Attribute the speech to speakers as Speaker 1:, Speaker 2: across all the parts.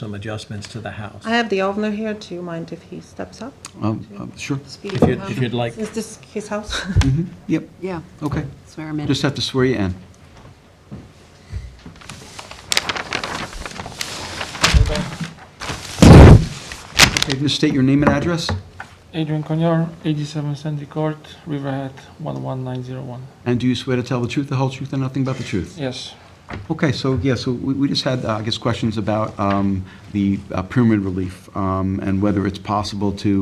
Speaker 1: some adjustments to the house.
Speaker 2: I have the owner here. Do you mind if he steps up?
Speaker 3: Um, um, Sure, Mm-hmm.
Speaker 2: Speak.
Speaker 1: If you'd, if you'd like,
Speaker 2: Is this his house?
Speaker 3: yep,
Speaker 4: Yeah,
Speaker 3: okay.
Speaker 4: swear him in.
Speaker 3: Just have to swear you in. Okay, just state your name and address,
Speaker 5: Adrian Cognor, 87 Sandy Court, Riverhead, 11901.
Speaker 3: and do you swear to tell the truth, the whole truth, and nothing but the truth?
Speaker 5: Yes,
Speaker 3: Okay, so, yeah, so we we just had, uh, I guess, questions about um, the uh, pyramid relief um, and whether it's possible to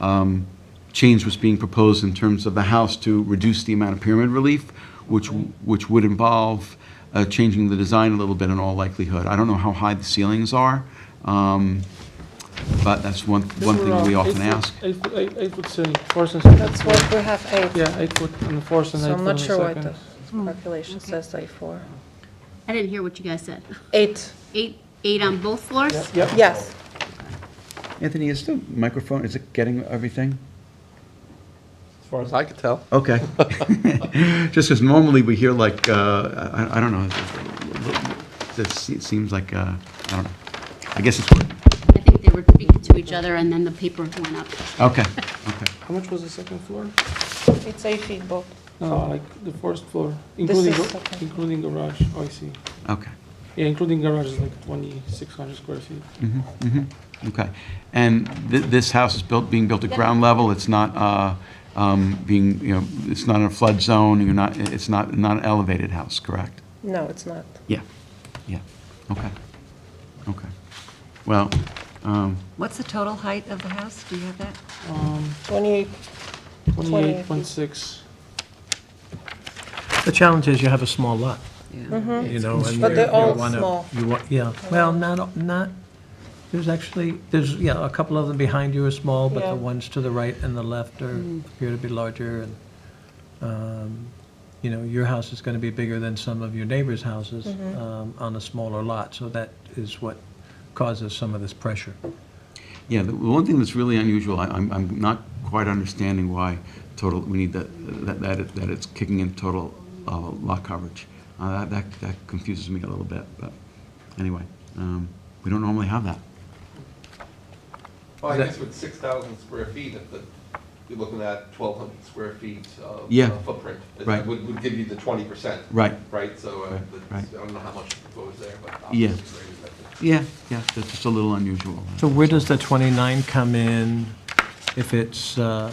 Speaker 3: um, change what's being proposed in terms of the house to reduce the amount of pyramid relief, which, which would involve uh, changing the design a little bit in all likelihood. I don't know how high the ceilings are, um, but that's one, one thing we often ask.
Speaker 5: Eight foot, eight, eight foot ceiling, fourth and second.
Speaker 2: That's what we have eight.
Speaker 5: Yeah, eight foot on the fourth and eight
Speaker 2: So
Speaker 5: foot
Speaker 2: I'm
Speaker 5: on
Speaker 2: not
Speaker 5: the
Speaker 2: sure what
Speaker 5: second.
Speaker 2: the
Speaker 1: Mm.
Speaker 2: calculation says I four.
Speaker 6: I didn't hear what you guys said.
Speaker 2: Eight,
Speaker 6: Eight, eight on both floors?
Speaker 5: Yep,
Speaker 2: yes.
Speaker 3: Anthony, is the microphone, is it getting everything?
Speaker 5: as far as
Speaker 7: I could tell.
Speaker 3: Okay. Just because normally we hear like, uh, I I don't know, this- it seems like, uh, I don't know, I guess it's working.
Speaker 6: I think they were speaking to each other, and then the paper went up.
Speaker 3: Okay, okay.
Speaker 5: How much was the second floor?
Speaker 2: It's eight feet both.
Speaker 5: No, like the first floor, including,
Speaker 2: is
Speaker 5: gar-
Speaker 2: second.
Speaker 5: including garage, oh, I see.
Speaker 3: Okay.
Speaker 5: Yeah, including garage is like 2,600 square feet.
Speaker 3: Mhm, mhm, Okay. And thi- this house is built, being built at ground level, it's not uh, um, being, you know, it's not in a flood zone, you're not, it's not, not an elevated house, correct?
Speaker 2: No, it's not.
Speaker 3: Yeah, yeah, okay, okay. Well, um,
Speaker 4: What's the total height of the house? Do you have that?
Speaker 5: Um,
Speaker 2: Twenty-eight,
Speaker 5: 28.6.
Speaker 1: the challenge is you have a small lot, you know, and you
Speaker 2: But they're all
Speaker 1: want
Speaker 2: small.
Speaker 1: to, you want, yeah, well, not, not, there's actually, there's, yeah, a couple of them behind you are small, but
Speaker 2: Yeah. Mm.
Speaker 1: the ones to the right and the left are, appear to be larger, and, um, you know, your house is going to be bigger than some of your neighbors' houses
Speaker 2: Mm-hmm.
Speaker 1: um, on a smaller lot, so that is what causes some of this pressure.
Speaker 3: Yeah, the the one thing that's really unusual, I- I'm, I'm not quite understanding why total, we need that, that, that it- that it's kicking in total uh, lot coverage. Uh, That, that that confuses me a little bit, but anyway, um, we don't normally have that.
Speaker 7: Well, I
Speaker 1: That-
Speaker 7: guess with six thousand square feet, if the, you're looking at twelve hundred square feet of
Speaker 3: Yeah.
Speaker 7: uh, footprint. it
Speaker 3: Right.
Speaker 7: Would, would give you the twenty percent.
Speaker 3: Right.
Speaker 7: Right, so, uh,
Speaker 3: Right,
Speaker 7: that's-
Speaker 3: right.
Speaker 7: I don't know how much goes there, but.
Speaker 3: Yeah.
Speaker 7: obviously there is that.
Speaker 3: Yeah, yeah, that's just a little unusual.
Speaker 1: So where does the 29 come in if it's uh,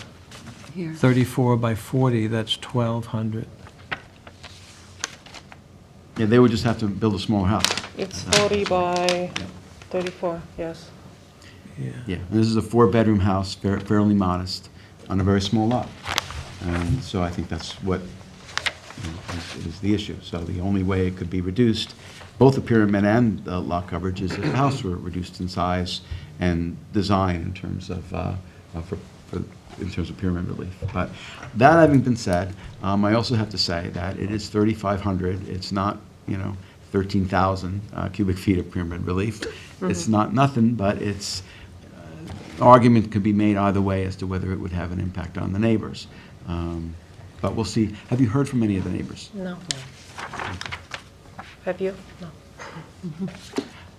Speaker 4: Here.
Speaker 1: 34 by 40, that's 1,200?
Speaker 3: Yeah, they would just have to build a smaller house.
Speaker 2: it's forty by thirty-four, yes.
Speaker 1: Yeah.
Speaker 3: Yeah, and this is a four-bedroom house, fair- fairly modest, on a very small lot. And so I think that's what you know, is is the issue. So the only way it could be reduced, both the pyramid and the lot coverage, is if the house were reduced in size and design in terms of, uh, uh, for- for- in terms of pyramid relief. But that having been said, um, I also have to say that it is 3,500. It's not, you know, 13,000 uh, cubic feet of pyramid relief. It's not nothing, but it's, argument could be made either way as to whether it would have an impact on the neighbors. Um, But we'll see. Have you heard from any of the neighbors?
Speaker 2: No. Have you? No.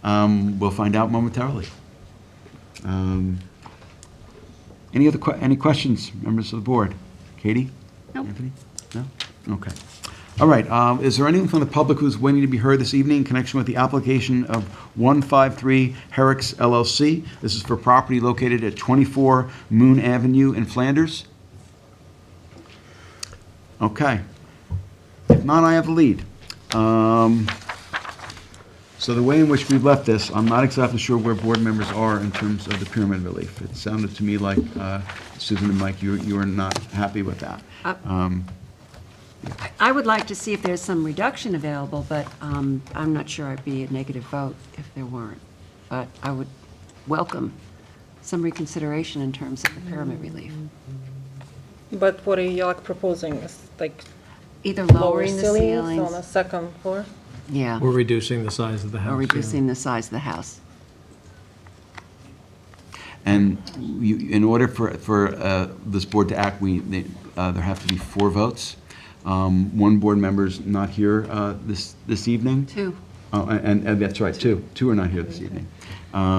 Speaker 3: Um, We'll find out momentarily. Um, Any other, que- any questions, members of the board? Katie?
Speaker 6: Nope.
Speaker 3: Anthony? No? Okay. All right, um, is there anyone from the public who's waiting to be heard this evening in connection with the application of 153 Herrick's LLC? This is for property located at 24 Moon Avenue in Flanders? Okay. If not, I have the lead. Um, So the way in which we left this, I'm not exactly sure where board members are in terms of the pyramid relief. It sounded to me like, uh, Susan and Mike, you you were not happy with that.
Speaker 4: Uh,
Speaker 3: Um,
Speaker 4: I- I would like to see if there's some reduction available, but um, I'm not sure I'd be a negative vote if there weren't. But I would welcome some reconsideration in terms of the pyramid relief.
Speaker 2: But what are you like proposing, is like
Speaker 4: Either
Speaker 2: lower
Speaker 4: lowering the
Speaker 2: ceilings on the
Speaker 4: ceilings,
Speaker 2: second floor?
Speaker 4: yeah,
Speaker 1: We're reducing the size of the house.
Speaker 4: or
Speaker 1: yeah.
Speaker 4: reducing the size of the house.
Speaker 3: And you, in order for, for uh, this board to act, we, they- uh, there have to be four votes. Um, One board member's not here uh, this, this evening.
Speaker 4: Two,
Speaker 3: Oh, and, and that's right, two, two are not here this evening. Um,